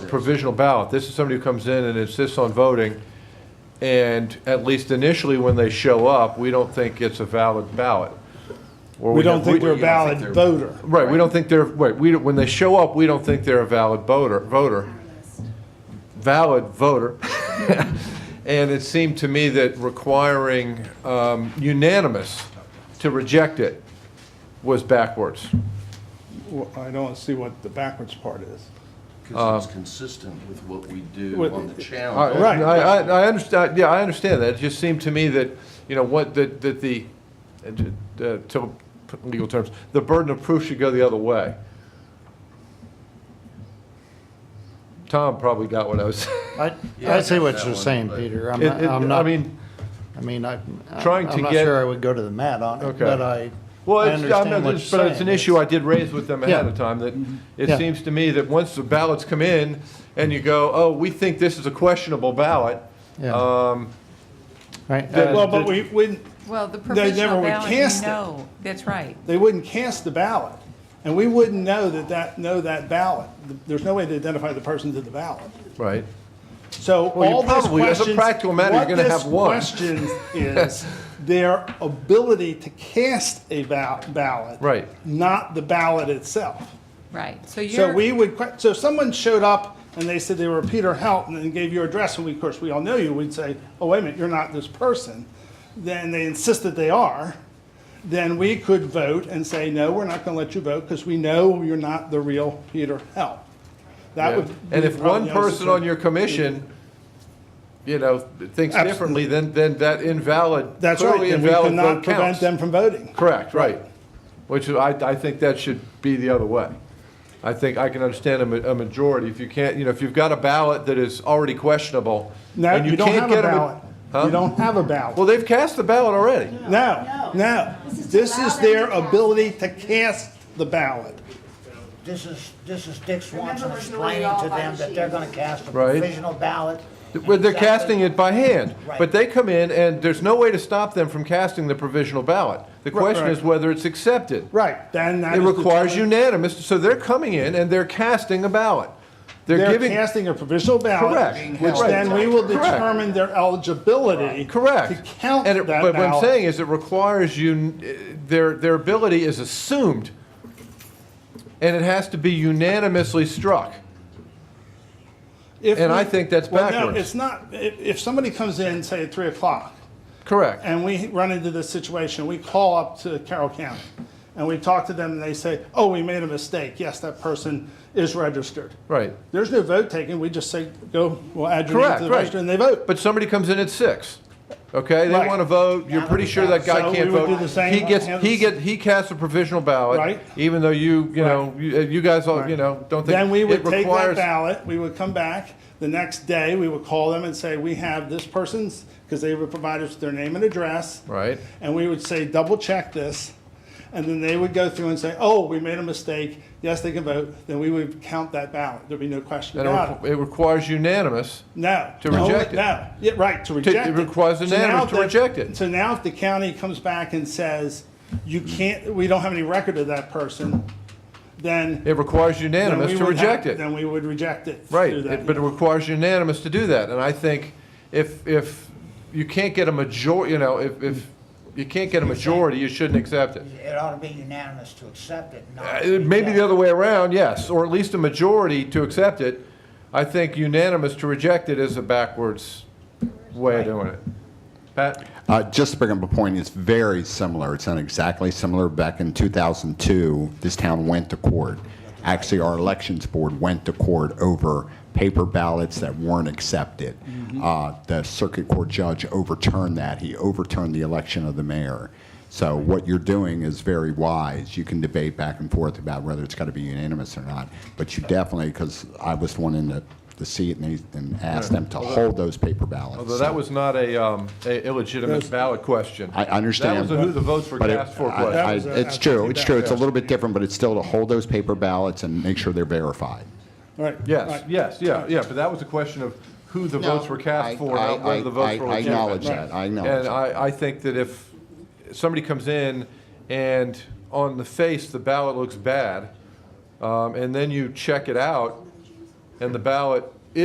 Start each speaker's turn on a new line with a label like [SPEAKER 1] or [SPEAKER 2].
[SPEAKER 1] provisional ballot. This is somebody who comes in and insists on voting, and at least initially when they show up, we don't think it's a valid ballot. Or
[SPEAKER 2] We don't think they're a
[SPEAKER 3] we don't
[SPEAKER 2] valid
[SPEAKER 3] think they're-
[SPEAKER 2] voter.
[SPEAKER 1] Right, we don't think they're, wait, we, don't- when they show up, we don't think they're a valid voter, voter, valid voter. And it seemed to me that requiring um, unanimous to reject it was backwards.
[SPEAKER 2] Well, I don't see what the backwards part is.
[SPEAKER 3] Because it's consistent with what we do
[SPEAKER 2] Uh, With-
[SPEAKER 3] on the
[SPEAKER 1] I-
[SPEAKER 3] challenge.
[SPEAKER 2] Right.
[SPEAKER 1] I, I, I understand, yeah, I understand that. It just seemed to me that, you know, what, that, that the, uh, to put legal terms, the burden of proof should go the other way. Tom probably got what I was,
[SPEAKER 4] I,
[SPEAKER 3] Yeah, I
[SPEAKER 4] I see
[SPEAKER 3] got
[SPEAKER 4] what
[SPEAKER 3] that
[SPEAKER 4] you're
[SPEAKER 3] one,
[SPEAKER 4] saying,
[SPEAKER 3] but-
[SPEAKER 4] Peter. I'm
[SPEAKER 1] it,
[SPEAKER 4] not,
[SPEAKER 1] it,
[SPEAKER 4] I'm not,
[SPEAKER 1] I mean,
[SPEAKER 4] I mean, I,
[SPEAKER 1] Trying
[SPEAKER 4] I'm
[SPEAKER 1] to
[SPEAKER 4] not
[SPEAKER 1] get-
[SPEAKER 4] sure I would go to the mat on it,
[SPEAKER 1] Okay.
[SPEAKER 4] but I,
[SPEAKER 1] well,
[SPEAKER 4] I
[SPEAKER 1] it's, I'm
[SPEAKER 4] understand
[SPEAKER 1] not,
[SPEAKER 4] what you're
[SPEAKER 1] but
[SPEAKER 4] saying.
[SPEAKER 1] it's an issue I did raise with them ahead
[SPEAKER 4] Yeah. Mm-hmm.
[SPEAKER 1] of time, that
[SPEAKER 4] Yeah.
[SPEAKER 1] it seems to me that once the ballots come in and you go, oh, we think this is a questionable ballot,
[SPEAKER 4] Yeah.
[SPEAKER 1] um,
[SPEAKER 4] Right,
[SPEAKER 1] that-
[SPEAKER 2] Well,
[SPEAKER 4] uh,
[SPEAKER 2] but we, we,
[SPEAKER 5] Well, the
[SPEAKER 2] They never
[SPEAKER 5] provisional
[SPEAKER 2] would
[SPEAKER 5] ballot,
[SPEAKER 2] cast
[SPEAKER 5] you
[SPEAKER 2] it.
[SPEAKER 5] know, that's right.
[SPEAKER 2] they wouldn't cast the ballot. And we wouldn't know that that, know that ballot. There's no way to identify the person to the ballot.
[SPEAKER 1] right.
[SPEAKER 2] So
[SPEAKER 1] Well, you
[SPEAKER 2] all those
[SPEAKER 1] probably- as a
[SPEAKER 2] questions.
[SPEAKER 1] practical matter, you're
[SPEAKER 2] what
[SPEAKER 1] gonna
[SPEAKER 2] this
[SPEAKER 1] have one.
[SPEAKER 2] question is their ability to cast a val- ballot.
[SPEAKER 1] Right.
[SPEAKER 2] Not the ballot itself.
[SPEAKER 5] Right, so you're.
[SPEAKER 2] So we would, que- so if someone showed up and they said they were Peter Helton and gave your address, and we, of course, we all know you, we'd say, oh, wait a minute, you're not this person. Then they insist that they are, then we could vote and say, no, we're not gonna let you vote because we know you're not the real Peter Help. That
[SPEAKER 1] Yeah.
[SPEAKER 2] would.
[SPEAKER 1] And
[SPEAKER 2] be
[SPEAKER 1] if
[SPEAKER 2] probably
[SPEAKER 1] one
[SPEAKER 2] the honest
[SPEAKER 1] person on
[SPEAKER 2] answer.
[SPEAKER 1] your commission, you know, thinks
[SPEAKER 2] Abs-
[SPEAKER 1] differently, then, then that invalid,
[SPEAKER 2] That's right,
[SPEAKER 1] clearly
[SPEAKER 2] and we
[SPEAKER 1] invalid
[SPEAKER 2] cannot
[SPEAKER 1] vote
[SPEAKER 2] prevent
[SPEAKER 1] counts.
[SPEAKER 2] them from voting.
[SPEAKER 1] Correct, right. Which I, I think that should be the other way. I think I can understand a, ma- a majority. If you can't, you know, if you've got a ballot that is already questionable.
[SPEAKER 2] No,
[SPEAKER 1] and
[SPEAKER 2] you don't
[SPEAKER 1] can't
[SPEAKER 2] have
[SPEAKER 1] get
[SPEAKER 2] a
[SPEAKER 1] ma-
[SPEAKER 2] ballot.
[SPEAKER 1] Huh?
[SPEAKER 2] You don't have a ballot.
[SPEAKER 1] Well, they've cast the ballot already.
[SPEAKER 2] No,
[SPEAKER 6] No.
[SPEAKER 2] no.
[SPEAKER 6] This is to
[SPEAKER 2] This
[SPEAKER 6] allow
[SPEAKER 2] is
[SPEAKER 6] them
[SPEAKER 2] their
[SPEAKER 6] to cast.
[SPEAKER 2] ability to cast the ballot.
[SPEAKER 6] This is, this is Dick Swanson
[SPEAKER 7] Remember, we're doing it
[SPEAKER 6] explaining
[SPEAKER 7] all
[SPEAKER 6] to
[SPEAKER 7] by
[SPEAKER 6] them that they're gonna cast a
[SPEAKER 1] Right.
[SPEAKER 6] provisional ballot.
[SPEAKER 1] Well, they're casting it by hand, but
[SPEAKER 6] Right.
[SPEAKER 1] they come in and there's no way to stop them from casting the provisional ballot. The question
[SPEAKER 2] right.
[SPEAKER 1] is whether it's accepted.
[SPEAKER 2] Right, then that
[SPEAKER 1] It
[SPEAKER 2] is
[SPEAKER 1] requires
[SPEAKER 2] determined-
[SPEAKER 1] unanimous, so they're coming in and they're casting a ballot. They're
[SPEAKER 2] They're
[SPEAKER 1] giving,
[SPEAKER 2] casting a provisional ballot,
[SPEAKER 1] Correct.
[SPEAKER 2] which
[SPEAKER 1] Right.
[SPEAKER 2] then we will
[SPEAKER 1] Correct.
[SPEAKER 2] determine their eligibility
[SPEAKER 1] correct.
[SPEAKER 2] to count
[SPEAKER 1] And
[SPEAKER 2] that
[SPEAKER 1] it- But what I'm
[SPEAKER 2] ballot.
[SPEAKER 1] saying is it requires you, their, their ability is assumed, and it has to be unanimously struck.
[SPEAKER 2] If
[SPEAKER 1] and
[SPEAKER 2] we-
[SPEAKER 1] I think that's
[SPEAKER 2] Well, no,
[SPEAKER 1] backwards.
[SPEAKER 2] it's not, if, if somebody comes in, say at three o'clock,
[SPEAKER 1] Correct.
[SPEAKER 2] and we run into this situation, we call up to Carroll County, and we talk to them, and they say, oh, we made a mistake, yes, that person is registered.
[SPEAKER 1] Right.
[SPEAKER 2] There's no vote taken, we just say, go, we'll add your name
[SPEAKER 1] Correct,
[SPEAKER 2] to the
[SPEAKER 1] right.
[SPEAKER 2] register, and they vote.
[SPEAKER 1] But somebody comes in at six, okay? They
[SPEAKER 2] Right.
[SPEAKER 1] want to vote, you're pretty sure that guy
[SPEAKER 2] So
[SPEAKER 1] can't
[SPEAKER 2] we would
[SPEAKER 1] vote.
[SPEAKER 2] do the same.
[SPEAKER 1] He gets, he get, he casts a provisional ballot,
[SPEAKER 2] Right.
[SPEAKER 1] even though you, you know, you you guys all, you
[SPEAKER 2] Right.
[SPEAKER 1] know, don't think.
[SPEAKER 2] Then we
[SPEAKER 1] it
[SPEAKER 2] would take that
[SPEAKER 1] requires-
[SPEAKER 2] ballot, we would come back, the next day, we would call them and say, we have this person's, because they would provide us their name and address.
[SPEAKER 1] Right.
[SPEAKER 2] And we would say, double check this, and then they would go through and say, oh, we made a mistake, yes, they can vote, then we would count that ballot, there'd be no question
[SPEAKER 1] And it
[SPEAKER 2] about
[SPEAKER 1] requ-
[SPEAKER 2] it.
[SPEAKER 1] it requires unanimous.
[SPEAKER 2] No.
[SPEAKER 1] to
[SPEAKER 2] No,
[SPEAKER 1] reject it.
[SPEAKER 2] No, yeah, right, to reject it.
[SPEAKER 1] requires
[SPEAKER 2] So
[SPEAKER 1] unanimous
[SPEAKER 2] now
[SPEAKER 1] to
[SPEAKER 2] the-
[SPEAKER 1] reject it.
[SPEAKER 2] So now if the county comes back and says, you can't, we don't have any record of that person, then
[SPEAKER 1] It requires
[SPEAKER 2] then
[SPEAKER 1] unanimous
[SPEAKER 2] we
[SPEAKER 1] to
[SPEAKER 2] would have-
[SPEAKER 1] reject it.
[SPEAKER 2] Then we would reject it.
[SPEAKER 1] Right,
[SPEAKER 2] through that.
[SPEAKER 1] it- but it requires unanimous to do that. And I think if, if you can't get a major, you know, if, if you can't get a majority, you shouldn't accept it.
[SPEAKER 6] It ought to be unanimous to accept it,
[SPEAKER 1] Uh,
[SPEAKER 6] not.
[SPEAKER 1] it may be the other way around, yes, or at least a majority to accept it. I think unanimous to reject it is a backwards way of doing it. Pat?
[SPEAKER 8] Uh, Just to bring up a point, it's very similar. It's not exactly similar. Back in 2002, this town went to court. Actually, our elections board went to court over paper ballots that weren't accepted. Uh, The circuit court judge overturned that. He overturned the election of the mayor. So what you're doing is very wise. You can debate back and forth about whether it's got to be unanimous or not, but you definitely, because I was the one in the the seat and they- and asked them to hold those paper ballots.
[SPEAKER 1] Although
[SPEAKER 8] So-
[SPEAKER 1] that was not a, um, a illegitimate ballot question.
[SPEAKER 8] I understand.
[SPEAKER 1] That was a who the votes were
[SPEAKER 8] but it-
[SPEAKER 1] cast for
[SPEAKER 8] I-
[SPEAKER 1] question.
[SPEAKER 8] I-
[SPEAKER 2] was a-
[SPEAKER 8] It's true, it's true. It's a little bit different, but it's still to hold those paper ballots and make sure they're verified.
[SPEAKER 2] All right, all
[SPEAKER 1] Yes,
[SPEAKER 2] right.
[SPEAKER 1] yes, yeah, yeah, but that was a question of who the votes were
[SPEAKER 8] I-
[SPEAKER 1] cast for,
[SPEAKER 8] I-
[SPEAKER 1] not whether the
[SPEAKER 8] I-
[SPEAKER 1] votes were
[SPEAKER 8] I
[SPEAKER 1] legitimate.
[SPEAKER 8] acknowledge that. I acknowledge
[SPEAKER 1] And
[SPEAKER 8] that.
[SPEAKER 1] I, I think that if somebody comes in and on the face, the ballot looks bad, um, and then you check it out, and the ballot